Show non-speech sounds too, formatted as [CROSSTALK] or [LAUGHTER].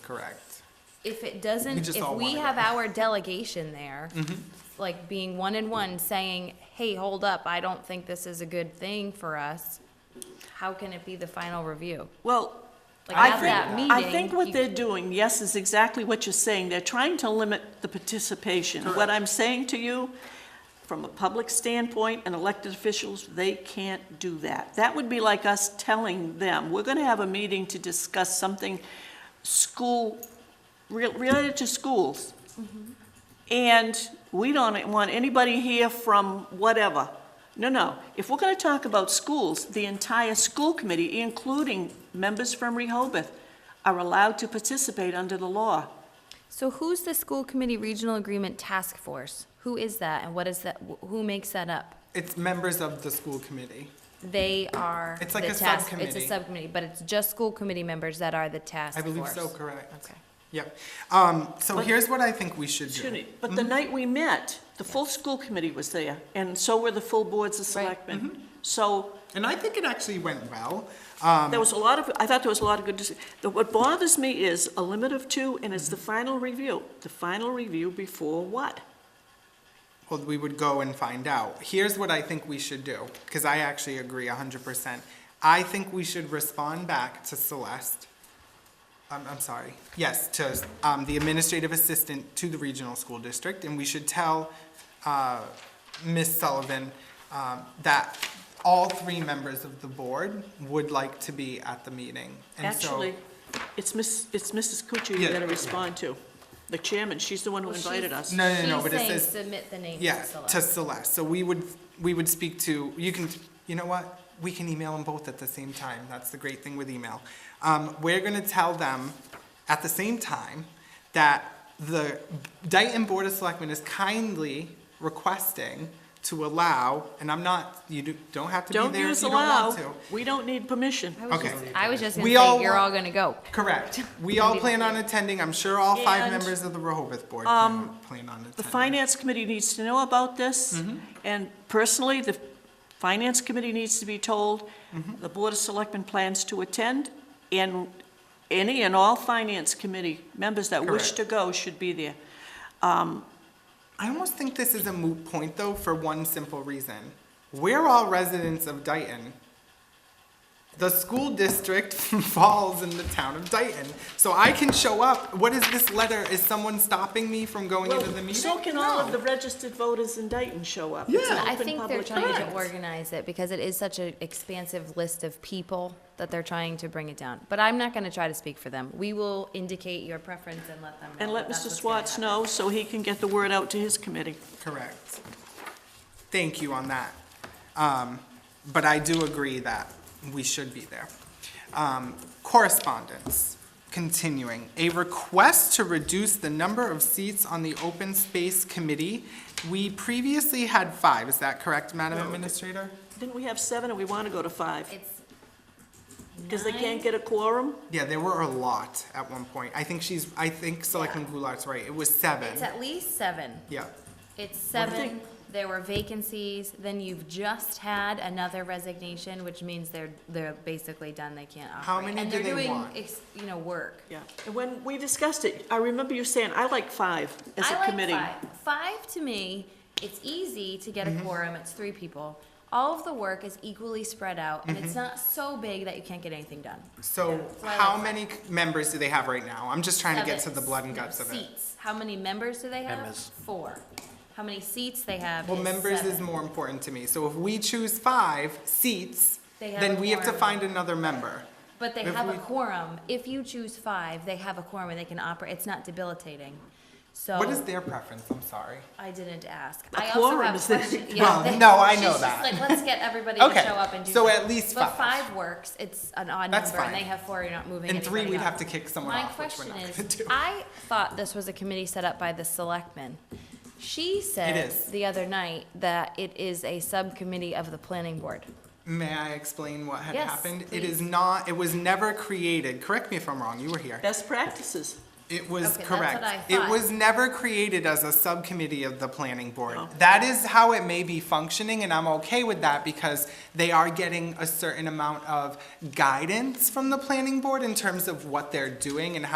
Correct. if it We doesn't, just if all we wanted have it. Mm-hmm. our delegation there, like being one and one, saying, hey, hold up, I don't think this is a good thing for us, how can it be the final review? Well, Like, I at that think, I meeting, think what you- they're doing, yes, is exactly what you're saying. They're trying to limit the participation. What I'm saying to you, from a public standpoint and elected officials, they can't do that. That would be like us telling them, we're gonna have a meeting to discuss something school, re- related to schools. And we don't want anybody here from whatever. No, no. If we're gonna talk about schools, the entire school committee, including members from Rehoboth, are allowed to participate under the law. So who's the school committee regional agreement task force? Who is that and what is that, wh- who makes that up? It's members of the school committee. They are It's like the a task- It's subcommittee. a subcommittee, but it's just school committee members that are the task I force. believe so, correct. Okay. Yep. Um, so But- here's what I think we should Excuse do. me, but the night we met, the full school committee was there, and so were the full boards of Right. selectmen. So And I think it actually went well. there was a lot of, I thought there was a lot of good, dis- the- what bothers me is a limit of two, and it's the final review. The final review before what? Well, we would go and find out. Here's what I think we should do, because I actually agree hundred percent. I think we should respond back to Celeste. I'm, I'm sorry, yes, to, um, the administrative assistant to the regional school district, and we should tell, uh, Ms. Sullivan, um, that all three members of the board would like to be at the meeting. And so- Actually, it's Miss, it's Mrs. Kuchar you Yeah. gotta respond to. The chairman, she's the one who Well, invited she's- us. No, no, no, she's but it saying says- submit the names. Yeah, Priscilla. to Celeste, so we would, we would speak to, you can, you know what? We can email them both at the same time, that's the great thing with email. Um, we're gonna tell them at the same time that the Dayton Board of Selectmen is kindly requesting to allow, and I'm not, you do- don't have to Don't be there if use you don't want allow, to. we don't need permission. I was Okay. just- I was just gonna We all say, you're want- all gonna go. [LAUGHS] Correct, we all plan on attending, I'm sure all five And, um, members of the Rehoboth Board plan plan on attending. The finance committee needs to know about this, Mm-hmm. and personally, the finance committee needs to be told, Mm-hmm. the board of selectmen plans to attend, and any and all finance committee members that wish Correct. to go should be there. I almost think this is a moot point, though, for one simple reason. We're all residents of Dayton. The school district [LAUGHS] falls in the town of Dayton, so I can show up. What is this letter? Is someone stopping me from going into the meeting? So can all of No. the registered voters in Dayton show up? Yeah. I think they're trying to meetings. organize it because it is such an expansive list of people that they're trying to bring it down. But I'm not gonna try to speak for them. We will indicate your preference and let them know. And let that Mr. that's what's gonna Swartz happen. know, so he can get the word out to his committee. Correct. Thank you on that. Um, but I do agree that we should be there. Um, correspondence, continuing. A request to reduce the number of seats on the Open Space Committee. We previously had five, is that correct, Madam Administrator? Didn't we have seven, and we want to go to five? It's Because they nine. can't get a quorum? Yeah, there were a lot at one point. I think she's, I think Selectman Goulart's right, it was seven. It's at least seven. Yeah, It's do you seven, think? there were vacancies, then you've just had another resignation, which means they're, they're basically done, they can't operate. How many do they And want? they're doing, ex- you know, work. Yeah, and when we discussed it, I remember you saying, I like five as I a like committee. Five. Five, to me, it's easy to get a Mm-hmm. quorum, it's three people. All of the work is equally spread out, and Mm-hmm. it's not so big that you can't get anything done. so So I how like- many members do they have right now? I'm just trying to get to Seven. the blood and No, guts of it. Seats, how many members do they have? Four. How many seats they have Well, is members is seven. more important to me, so if we choose five seats, They have then a we have to quorum. find another member. But they If have a we- quorum. If you choose five, they have a quorum and they can operate. It's not debilitating. So What is their preference, I'm sorry? I didn't ask. A I also quorum have is the- questions. [LAUGHS] yeah, Well, they- no, I know She's just that. like, let's get everybody to Okay, show up and do. so at something." least But five. five works. It's an odd That's number and fine. they have four, you're not moving And three, anybody we'd up. have to kick someone My off, which we're question not gonna is, do. I thought this was a committee set up by the selectmen. She said is. the other night that it is a subcommittee of the planning board. May I explain what had Yes, happened? It is please. not, it was never created, correct me if I'm wrong, you were here. Best practices. It was Okay, that's what correct. I It thought. was never created as a subcommittee of the planning board. That is how it may be functioning, and I'm okay with that because they are getting a certain amount of guidance from the planning board in terms of what they're doing and how